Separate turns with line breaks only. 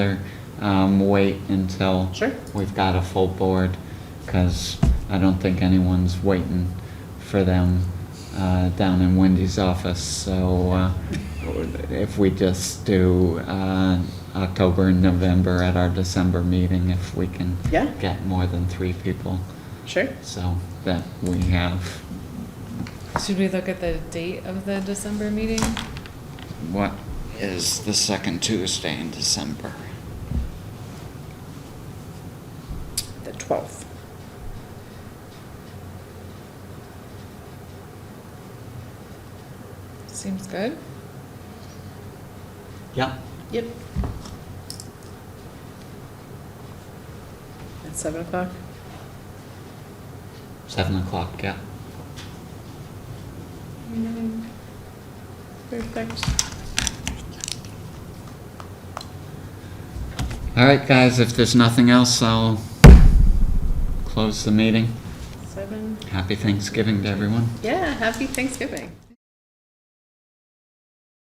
rather um, wait until
Sure.
we've got a full board, because I don't think anyone's waiting for them uh, down in Wendy's office. So uh, if we just do uh, October and November at our December meeting, if we can
Yeah.
get more than three people,
Sure.
so that we have
Should we look at the date of the December meeting?
What is the second Tuesday in December?
The 12th.
Seems good.
Yep.
Yep. At 7 o'clock?
Seven o'clock, yeah.
Perfect.
All right, guys, if there's nothing else, I'll close the meeting.
7.
Happy Thanksgiving to everyone.
Yeah, happy Thanksgiving.